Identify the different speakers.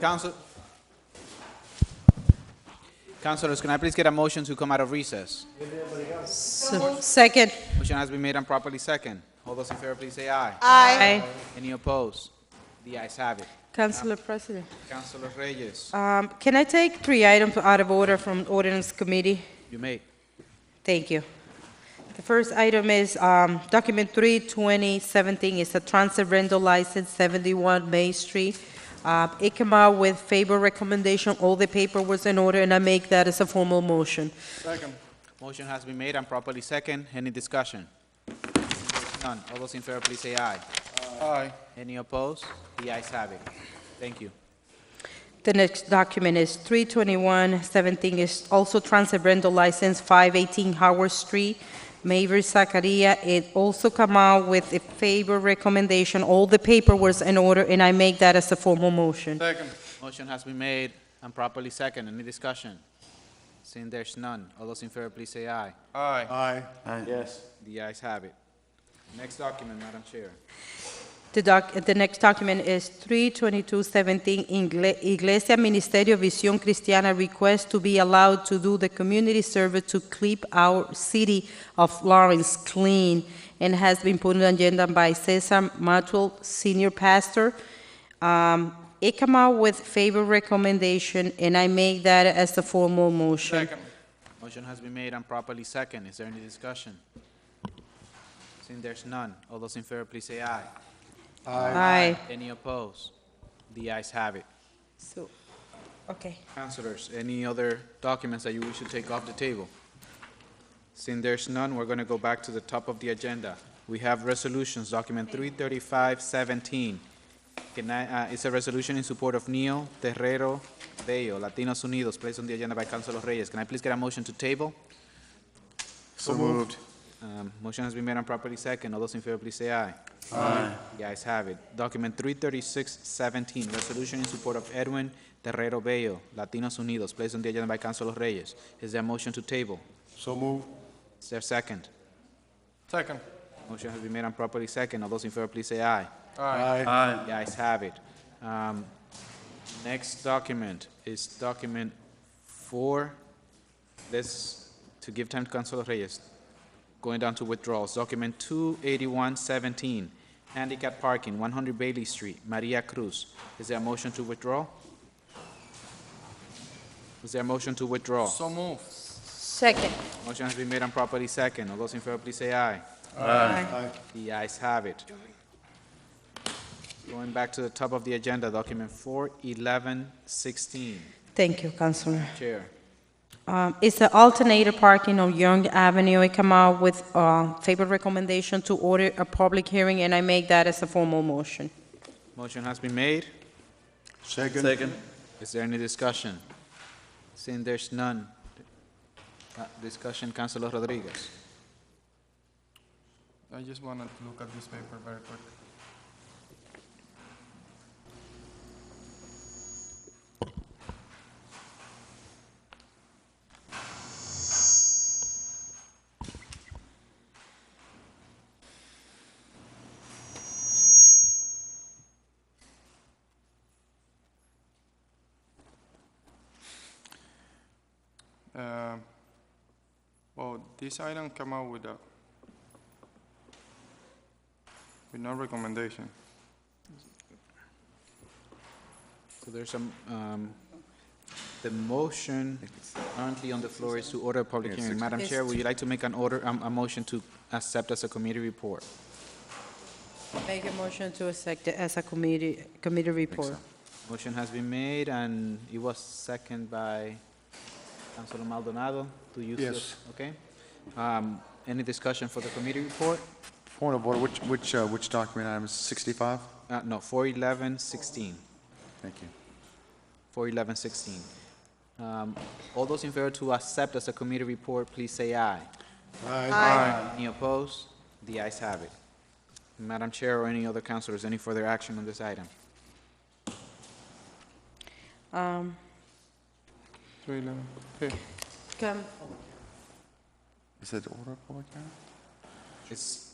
Speaker 1: Council. Councilors, can I please get a motion to come out of recess?
Speaker 2: So- Second.
Speaker 1: Motion has been made and properly second. All those in favor, please say aye.
Speaker 2: Aye.
Speaker 1: Any opposed? The ayes have it.
Speaker 2: Councilor President,
Speaker 1: Councilor Reyes,
Speaker 2: um, can I take three items out of order from ordinance committee?
Speaker 1: you may.
Speaker 2: Thank you. The first item is um, document 32017, it's a transit rental license, 71 Main Street. Uh, It came out with favor recommendation, all the paper was in order, and I make that as a formal motion.
Speaker 1: Motion has been made and properly second. Any discussion? None. All those in favor, please say aye. Aye. Any opposed? The ayes have it. Thank you.
Speaker 2: The next document is 32117, is also transit rental license, 518 Howard Street, Maver Zakaria. It also come out with a favor recommendation. All the paper was in order, and I make that as a formal motion.
Speaker 1: Motion has been made and properly second. Any discussion? Seeing there's none, all those in favor, please say aye.
Speaker 3: Yes.
Speaker 1: The ayes have it. Next document, Madam Chair.
Speaker 2: The doc, the next document is 32217 Ingle- Iglesia Ministerio Visión Cristiana request to be allowed to do the community service to keep our city of Lawrence clean and has been put on agenda by Cesar Matul, senior pastor. Um, It come out with favor recommendation and I make that as the formal motion.
Speaker 1: Motion has been made and properly second. Is there any discussion? Seeing there's none, all those in favor, please say aye.
Speaker 2: Aye.
Speaker 1: Any opposed? The ayes have it.
Speaker 2: So, okay.
Speaker 1: Councilors, any other documents that you wish to take off the table? Seeing there's none, we're going to go back to the top of the agenda. We have resolutions, document 33517. Can I, uh, It's a resolution in support of Neo Terrero Bello, Latinos Unidos, placed on the agenda by Councilor Reyes. Can I please get a motion to table?
Speaker 3: So moved.
Speaker 1: Um, Motion has been made and properly second. All those in favor, please say aye. Aye. The ayes have it. Document 33617, resolution in support of Edwin Terrero Bello, Latinos Unidos, placed on the agenda by Councilor Reyes. Is there a motion to table?
Speaker 3: So moved.
Speaker 1: Is there a second?
Speaker 4: Second.
Speaker 1: Motion has been made and properly second. All those in favor, please say aye.
Speaker 3: Aye.
Speaker 1: The ayes have it. Um, Next document is document four, this, to give time to Councilor Reyes, going down to withdrawals. Document 28117, handicap parking, 100 Bailey Street, Maria Cruz. Is there a motion to withdraw? Is there a motion to withdraw?
Speaker 4: So move.
Speaker 2: Second.
Speaker 1: Motion has been made and properly second. All those in favor, please say aye.
Speaker 3: Aye.
Speaker 1: The ayes have it. Going back to the top of the agenda, document 41116,
Speaker 2: Thank you, Councilor.
Speaker 1: Chair.
Speaker 2: Um, It's an alternative parking on Young Avenue. It come out with uh, favor recommendation to order a public hearing, and I make that as a formal motion.
Speaker 1: Motion has been made.
Speaker 3: Second. Second.
Speaker 1: Is there any discussion? Seeing there's none, uh, discussion, Councilor Rodriguez.
Speaker 4: I just want to look at this paper very quick. Um, Well, this item came out with a, with no recommendation.
Speaker 1: So there's some, um, the motion currently on the floor is to order a public hearing. Madam Chair, would you like to make an order, um, a motion to accept as a committee report?
Speaker 2: Make a motion to accept it as a committee, committee report.
Speaker 1: Motion has been made, and it was second by Councilor Maldonado to use this,
Speaker 3: Yes.
Speaker 1: okay? Um, Any discussion for the committee report?
Speaker 3: Point of order, which, which, uh, which document item is 65?
Speaker 1: Uh, No, 41116,
Speaker 3: Thank you.
Speaker 1: 41116. Um, All those in favor to accept as a committee report, please say aye. Aye. Any opposed? The ayes have it. Madam Chair or any other councilors, any further action on this item?
Speaker 2: Um,
Speaker 4: Three eleven. Okay.
Speaker 2: come-
Speaker 3: Is it order of public hearing?
Speaker 1: It's